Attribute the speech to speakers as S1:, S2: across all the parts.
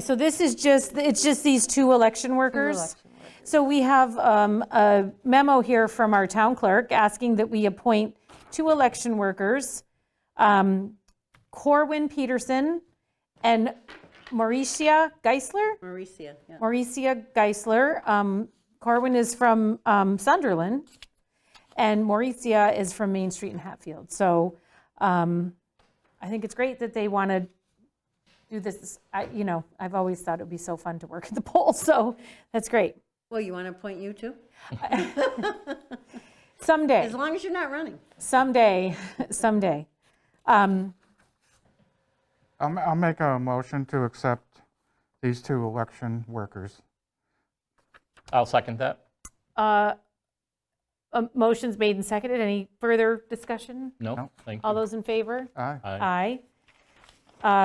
S1: So this is just, it's just these two election workers.
S2: election
S1: So we have um, a memo here from our town clerk asking that we appoint two election workers, um, Corwin Peterson and Mauricia Geisler.
S2: Mauricia, yeah.
S1: Mauricia Geisler. Um, Corwin is from um, Sunderland, and Mauricia is from Main Street in Hatfield. So um, I think it's great that they want to do this. I, you know, I've always thought it would be so fun to work at the poll, so that's great.
S2: Well, you want to appoint you too?
S1: Someday,
S2: As long as you're not running.
S1: someday, someday. Um,
S3: I'll, ma- I'll make a motion to accept these two election workers.
S4: I'll second that.
S1: uh, um, Motion's made and seconded. Any further discussion?
S4: No, thank
S1: All
S4: you.
S1: those in favor?
S3: Aye.
S4: Aye.
S1: Aye.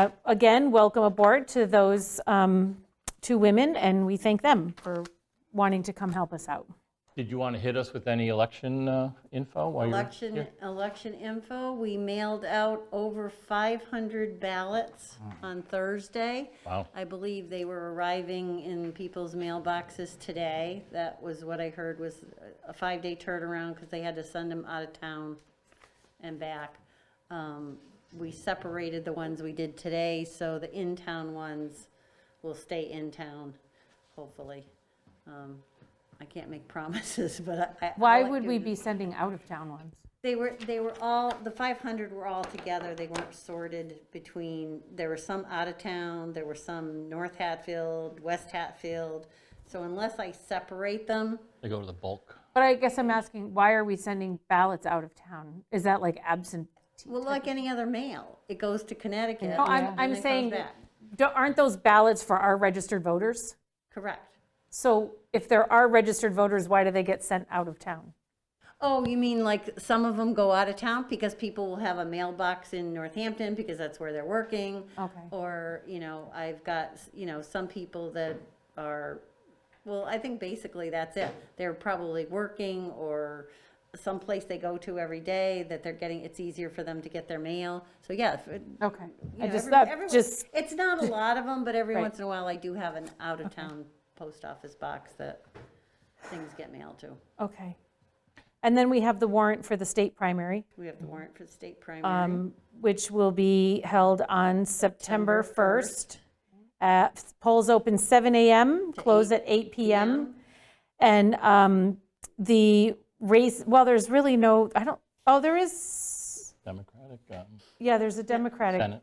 S1: Uh, Again, welcome aboard to those um, two women, and we thank them for wanting to come help us out.
S4: Did you want to hit us with any election uh, info while you're?
S2: Election, election info, we mailed out over 500 ballots on Thursday.
S4: Hmm. Wow.
S2: I believe they were arriving in people's mailboxes today. That was what I heard was a- a five-day turnaround because they had to send them out of town and back. Um, We separated the ones we did today, so the in-town ones will stay in town, hopefully. Um, I can't make promises, but I- I. I'll
S1: Why
S2: let
S1: would
S2: you
S1: we
S2: know.
S1: be sending out-of-town ones?
S2: They were, they were all, the 500 were all together, they weren't sorted between, there were some out of town, there were some North Hatfield, West Hatfield. So unless I separate them,
S4: They go to the bulk.
S1: But I guess I'm asking, why are we sending ballots out of town? Is that like absentee?
S2: well, like any other mail, Oh, it goes to Connecticut.
S1: No, I'm,
S2: and then
S1: I'm
S2: it comes
S1: saying,
S2: back.
S1: don't- aren't those ballots for our registered voters?
S2: Correct.
S1: So if there are registered voters, why do they get sent out of town?
S2: Oh, you mean like some of them go out of town because people will have a mailbox in Northampton because that's where they're working?
S1: Okay.
S2: Or, you know, I've got, you know, some people that are, well, I think basically that's it. They're probably working or someplace they go to every day that they're getting, it's easier for them to get their mail. So, yeah. if it-
S1: Okay.
S2: you
S1: I
S2: know,
S1: just,
S2: every-
S1: that
S2: every-
S1: just,
S2: It's not a lot of them, but every
S1: Right.
S2: once in a while I do have an out-of-town post office box that things get mailed to.
S1: okay. And then we have the warrant for the state primary.
S2: We have the warrant for the state primary.
S1: Mm-hmm. um, which will be held on September 1st. Uh, Polls open 7 AM, close at 8 PM. And um, the race, well, there's really no, I don't, oh, there is,
S4: Democratic, um,
S1: yeah, there's a Democratic,
S4: Senate.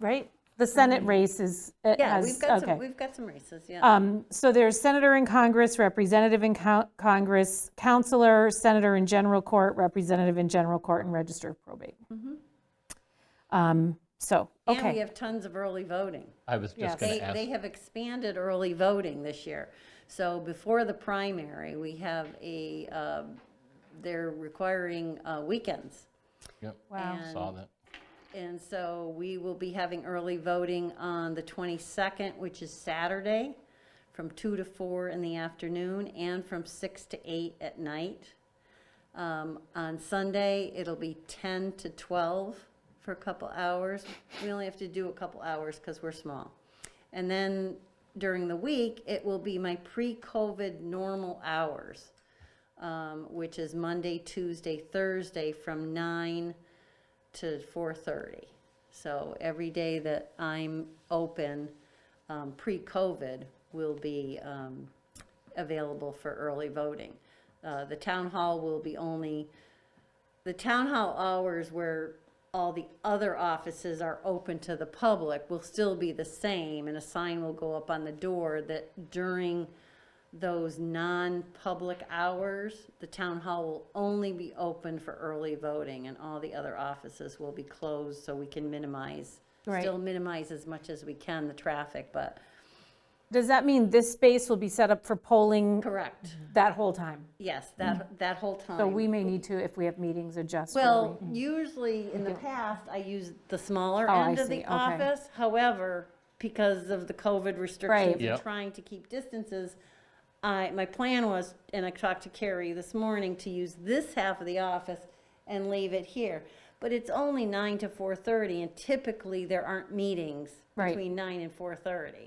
S1: right? The Senate race is, it
S2: Mm-hmm. Yeah,
S1: has,
S2: we've got some,
S1: okay.
S2: we've got some races, yeah.
S1: Um, So there's senator in Congress, representative in co- Congress, counselor, senator in general court, representative in general court, and register of probate. Um, So, okay.
S2: Mm-hmm. And we have tons of early voting.
S4: I was just
S1: Yes.
S4: going
S2: They,
S4: to ask.
S2: they have expanded early voting this year. So before the primary, we have a, um, they're requiring uh, weekends.
S4: Yep,
S1: Wow.
S4: Saw that.
S2: And so we will be having early voting on the 22nd, which is Saturday, from 2 to 4 in the afternoon and from 6 to 8 at night. Um, On Sunday, it'll be 10 to 12 for a couple hours. We only have to do a couple hours because we're small. And then during the week, it will be my pre-COVID normal hours, um, which is Monday, Tuesday, Thursday from 9 to 4:30. So every day that I'm open, um, pre-COVID, will be um, available for early voting. Uh, The town hall will be only, the town hall hours where all the other offices are open to the public will still be the same, and a sign will go up on the door that during those non-public hours, the town hall will only be open for early voting, and all the other offices will be closed, so we can minimize,
S1: Right.
S2: still minimize as much as we can the traffic, but,
S1: Does that mean this space will be set up for polling
S2: correct.
S1: that whole time?
S2: Yes, that, that whole time.
S1: Mm-hmm. So we may need to, if we have meetings, adjust. where
S2: Well, usually in the past, I use the smaller
S1: Oh, I
S2: end of
S1: see.
S2: the
S1: Okay.
S2: office. However, because of the COVID restrictions and
S4: Yep.
S2: trying to keep distances, I, my plan was, and I talked to Carrie this morning, to use this half of the office and leave it here. But it's only nine to four thirty and typically there aren't meetings
S1: Right.
S2: between nine and four thirty.